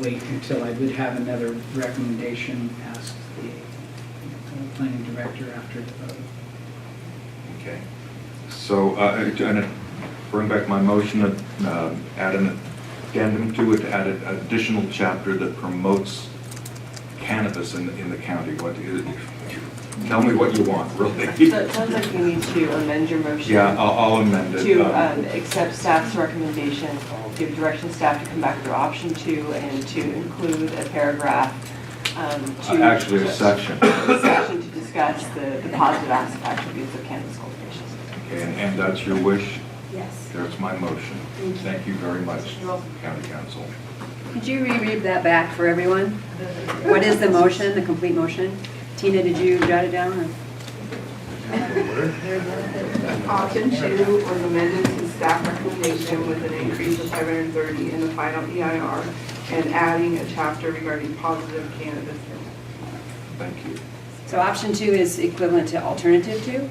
wait until I would have another recommendation asked the uh, planning director after the vote. Okay. So, uh, I'm going to bring back my motion and um, add an addendum to it, add an additional chapter that promotes cannabis in, in the county. What, i- tell me what you want, really. So it sounds like you need to amend your motion. Yeah, I'll I'll amend it. To um, um, uh, accept staff's recommendation, give direction staff to come back with option two and to include a paragraph um, uh, to. Actually, a section. Okay, a Section to discuss the the positive as- attributes of cannabis cultivation. And and that's your wish? Yes. There's my motion. Thank you. Thank you very much, You're welcome. County Council. Could you reread that back for everyone? What is the motion, the complete motion? Tina, did you jot it down? or- Option two was amended to staff recommendation with an increase of 530 in the final EIR and adding a chapter regarding positive cannabis. Thank you. So option two is equivalent to alternative two?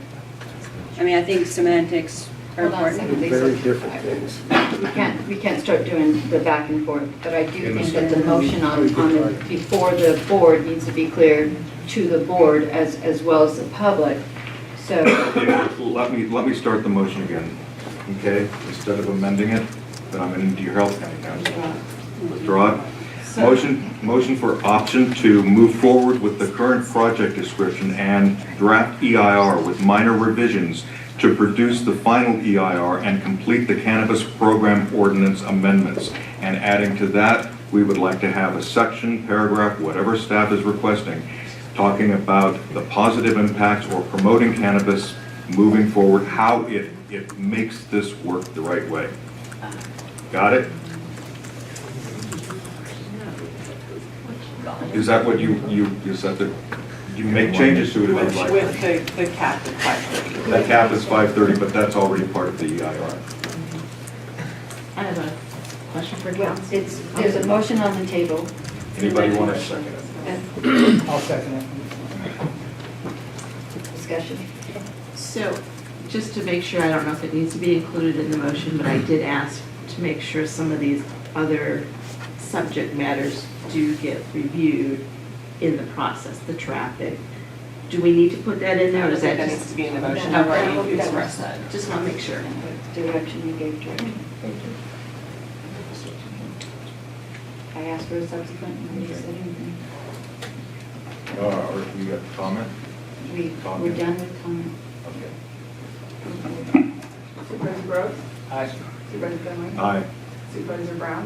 I mean, I think semantics are Hold on a second. important. They're very different things. We can't, we can't start doing the back and forth, but I do think that the motion on, on, the- before the board needs to be clear to the board as, as well as the public. So, Let me, let me start the motion again, okay? Instead of amending it, then I'm into your health county council. Withdraw it. So- Motion, motion for option two, move forward with the current project description and draft EIR with minor revisions to produce the final EIR and complete the cannabis program ordinance amendments. And adding to that, we would like to have a section, paragraph, whatever staff is requesting, talking about the positive impacts or promoting cannabis moving forward, how it, it makes this work the right way. Got it? Is that what you, you, is that the, you make changes to it if With you'd with like? the, the cap at 530. That cap is five thirty, but that's already part of the E EIR. I have a question for Well, council. It's, there's a motion on the table. uh, Anybody want to second it? Uh, I'll second it. Discussion. So, just to make sure, I don't know if it needs to be included in the motion, but I did ask to make sure some of these other subject matters do get reviewed in the process, the traffic. Do we need to put that in there, or I is think that that needs to just? be in the motion, No, I've no, already that was- expressed that. Just want to make sure. Direction you gave direction. I asked for a subsequent, nobody said anything. Uh, or you got a comment? We, we're done with comment. Okay. Supervisor Brooks? Aye. Supervisor Finley? Aye. Supervisor Brown?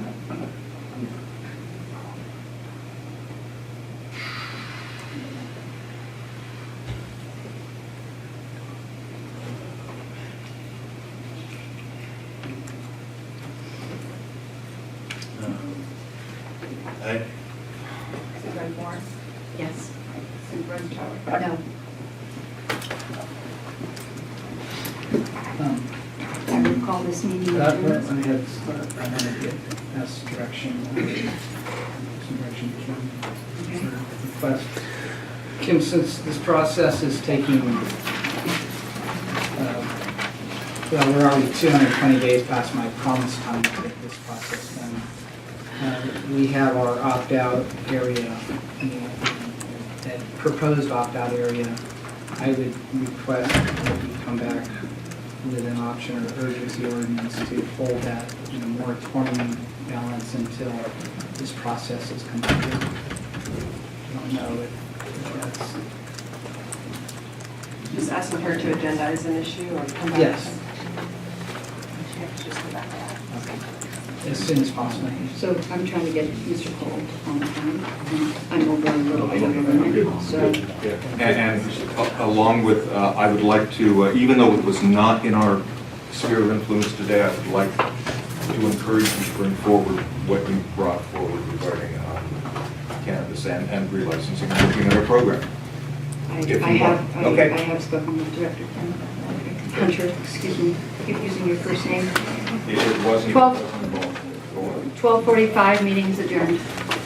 Aye. Supervisor Warren? Yes. Supervisor Tyler? No, Um, I will call this meeting That, adjourned. that I had, I wanted to get, ask direction, uh, some direction to Kim. for the request. Kim, since this process is taking, uh, well, we're already 220 days past my promise time to get this process done. Uh, We have our opt-out area, you know, that proposed opt-out area. I would request that you come back with an option or urgency ordinance to hold that, you know, moratorium balance until this process is completed. I don't know if if that's, Just asking her to agendize an issue or come back? Yes. She has to just come back to that. okay, as soon as possible. So I'm trying to get Mr. Cole on the phone. I'm over a little bit over now, so And, and a- along with, uh, I would like to, uh, even though it was not in our sphere of influence today, I would like to encourage you to bring forward what you brought forward regarding uh, cannabis and, and relicensing, and looking at our program. I I If you have, want. I Okay. I have spoken with Director Kim. Hunter, excuse me, keep using your first name. It- It wasn't. Twelve. wasn't involved. 12:45, meeting's adjourned.